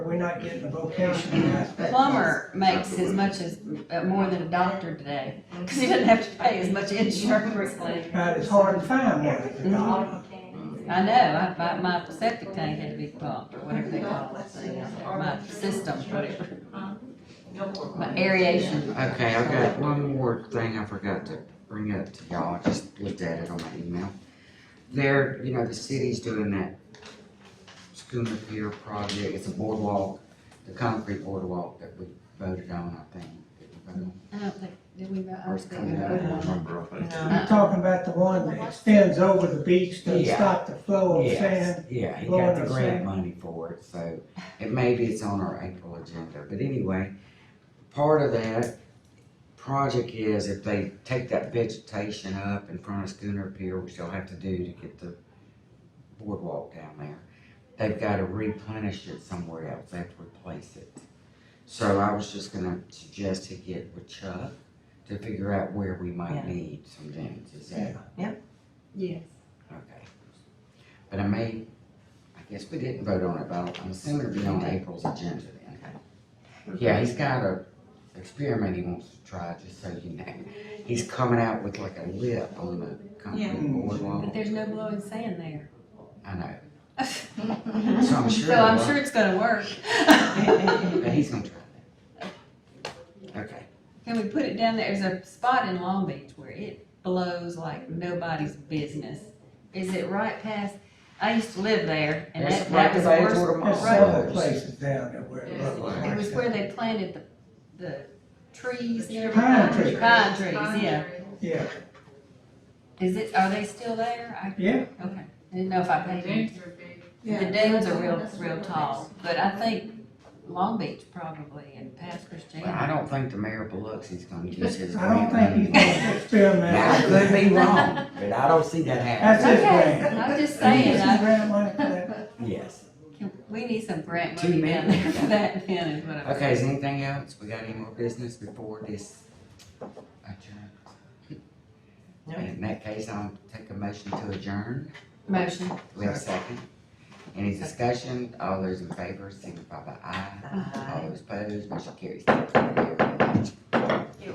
not getting a vocational aspect. Plumber makes as much as, uh, more than a doctor today, because he doesn't have to pay as much insurance. But it's hard to find one. if you're not. Mm-hmm. I know, I, my, my septic tank had to be pumped, or whatever they call it, my system, whatever. My aeration, Okay, I've got one more thing I forgot to bring up to y'all, I just looked at it on my email. There, you know, the city's doing that schooner pier project, it's a boardwalk, the concrete boardwalk that we voted on, I think. that we voted on, I don't think, did we, I Or don't it's think we coming out, I voted don't on it. remember. You're talking about the one that extends over the beach to Yeah. stop the flow of Yes, sand. yeah, he Lord, got the it's grant sad. money for it, so it maybe it's on our April agenda, but anyway, part of that project is if they take that vegetation up in front of Schooner Pier, which they'll have to do to get the boardwalk down there, they've gotta replenish it somewhere else, they have to replace it. So I was just gonna suggest to get with Chuck to figure out where we might Yeah. need some damages at. Yes. Okay. But I may, I guess we didn't vote on it, but I'm assuming it'll be on April's agenda then. Yeah, he's got a experiment he wants to try, just so you know. He's coming out with like a lip on the Yeah. concrete But boardwalk. there's no blowing sand there. I So know, so I'm sure. it I'm will. sure it's gonna work. But he's gonna try that. Okay, Can we put it down there? There's a spot in Long Beach where it blows like nobody's business. Is it right past, I used to live there and It's that, that right was the by worst. Edgewater There's Mall. right. several Right. places down there where it looks Right. It was where like that. they planted the, the trees and Pine everything. trees. Pine trees, yeah. Yeah, Is it, are they still there? I, yeah, okay. I didn't know if I The paid. dunes are big. The dunes are real, real tall, but I think Long Beach probably and past but I Christiana. don't think the mayor of Biloxi's gonna use his I don't grant think he's money. gonna Now, I could experiment. be wrong, but I don't see that That's happening. his Okay, grant. I'm just This saying, is I, grant money for that. Yes. can- we need some grant Two money down men. there for that then is what I'm. Okay, is anything else? We got any more business before this adjourn? No. In that case, I'll take a motion to adjourn. Motion. We have a second. Any discussion? All those in favor, signify by aye. All those opposed, motion carries. Thank you very much.